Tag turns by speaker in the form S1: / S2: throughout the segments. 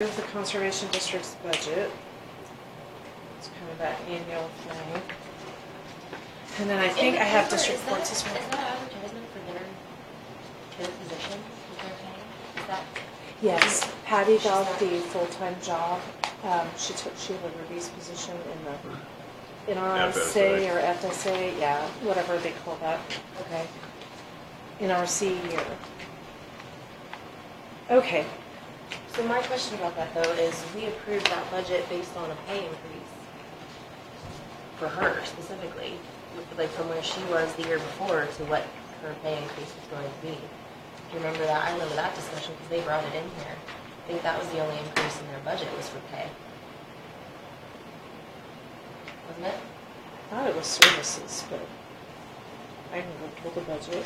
S1: Here's the conservation district's budget. It's kind of that annual thing. And then I think I have district courts as
S2: Is
S1: well.
S2: that advertisement for their, their position with their county? Is that,
S1: Yes, Patty got the full-time job. Um, she took Sheila Ruby's position in the, in RSA
S3: FSA.
S1: or FSA, yeah, whatever they call that. Okay. In our C year. Okay,
S2: so my question about that though is, we approved that budget based on a pay increase for her specifically, with- like from where she was the year before to what her pay increase was going to be. Do you remember that? I remember that discussion because they brought it in here. I think that was the only increase in their budget was for pay. Wasn't it?
S1: I thought it was services, but I can go pull the budget.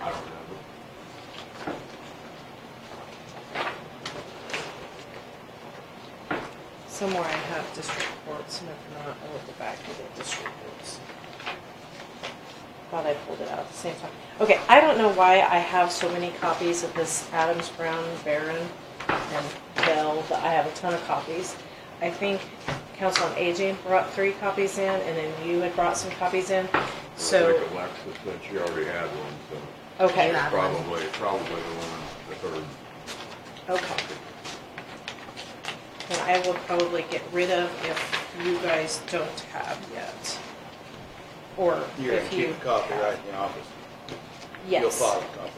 S3: I don't remember.
S1: Somewhere I have district courts, and if not, I will go back to the district courts. Thought I pulled it out at the same time. Okay, I don't know why I have so many copies of this Adams, Brown, Barron, and Bell, but I have a ton of copies. I think Council on Aging brought three copies in, and then you had brought some copies in,
S3: I
S1: so,
S3: think Alexis said she already had one, so
S1: okay,
S2: Yeah.
S3: probably, probably the one, the third.
S1: okay. And I will probably get rid of if you guys don't have yet. Or
S4: You're gonna
S1: if you.
S4: keep a copy
S1: have.
S4: right in the office. You'll
S1: Yes,
S4: file a copy.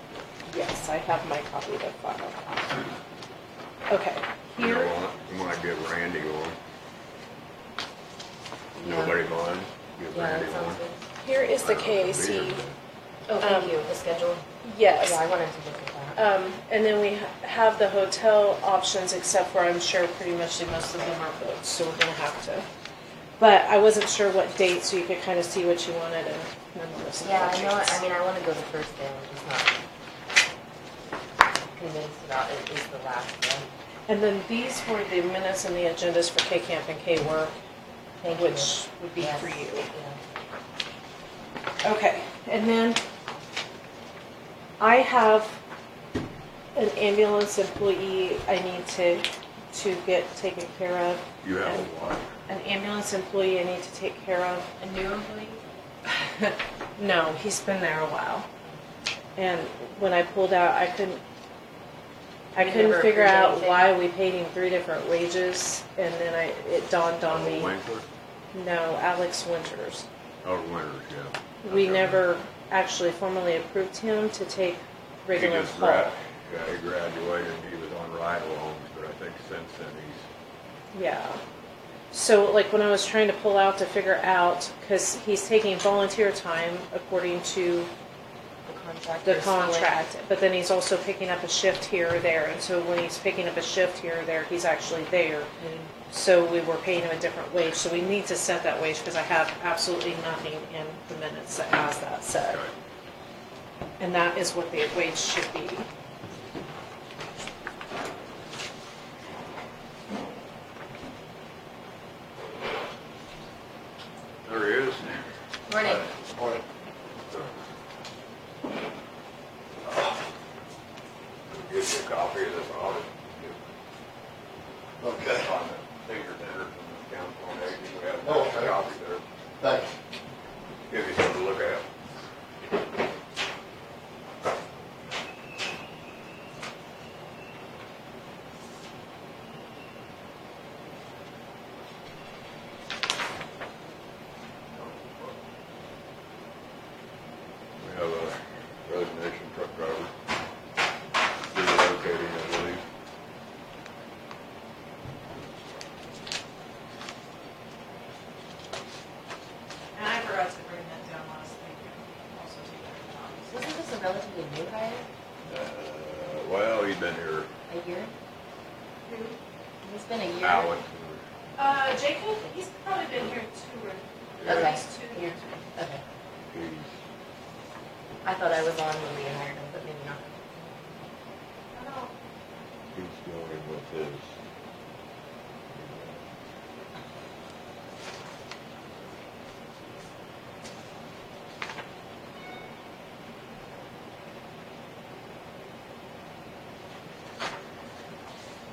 S1: yes, I have my copy to file. Okay,
S3: You
S1: here,
S3: want it? You might give Randy one.
S2: Yeah.
S3: Nobody mind? Give
S2: Yeah,
S3: Randy
S2: that sounds
S3: one.
S2: good.
S5: Here is the
S3: I don't know if it'll be
S5: KAC,
S3: here,
S2: Oh,
S5: Um,
S2: thank you, the schedule.
S1: yes.
S2: Yeah, I wanted to look at that.
S1: Um, and then we ha- have the hotel options, except for I'm sure pretty much that most of them are booked, so we're gonna have to. But I wasn't sure what date, so you could kind of see what you wanted and none of this.
S2: Yeah, I know, I mean, I wanna go the first day, I'm just not convinced about it is the last day.
S1: And then these were the minutes and the agendas for K Camp and K Work,
S2: Thank you.
S1: which would be
S2: Yes,
S1: for you.
S2: yeah.
S1: Okay, and then I have an ambulance employee I need to, to get taken care of.
S3: You have a what?
S1: An ambulance employee I need to take care of.
S2: A new employee?
S1: No, he's been there a while. And when I pulled out, I couldn't, I
S2: We
S1: couldn't
S2: never
S1: figure
S2: approved
S1: out
S2: anything.
S1: why we paid him three different wages. And then I, it dawned on
S3: Oh,
S1: me,
S3: Winkler?
S1: no, Alex Winters.
S3: Oh, Winters, yeah.
S1: We
S3: Okay.
S1: never actually formally approved him to take
S3: He
S1: regular
S3: just
S1: call.
S3: grad, yeah, he graduated, he was on ride-alongs, but I think since then he's,
S1: Yeah. So like when I was trying to pull out to figure out, because he's taking volunteer time according to
S2: The contract.
S1: the
S2: or someone?
S1: contract, but then he's also picking up a shift here or there. And so when he's picking up a shift here or there, he's actually there.
S3: Mm-hmm.
S1: So we were paying him a different wage. So we need to set that wage because I have absolutely nothing in the minutes that has that set.
S3: okay.
S1: And that is what the wage should be.
S3: There he is.
S2: Morning.
S4: Or
S3: Give you a copy of this audit.
S4: Okay.
S3: On the fingerprints and the council on aging, we have
S4: Okay.
S3: a copy there.
S4: Thanks.
S3: Give you something to look at. We have a resignation truck driver. Relocating, I believe.
S1: And I forgot to bring that down last night.
S2: Wasn't this a relatively new hire?
S3: Uh, well, he's been here,
S2: A year? It's been a year.
S3: Alex.
S1: Uh, Jacob, he's probably been here two or
S3: yeah,
S2: Okay.
S1: two
S2: years. Okay.
S3: He's
S2: I thought I was on when we hired him, but maybe not.
S3: He's going with his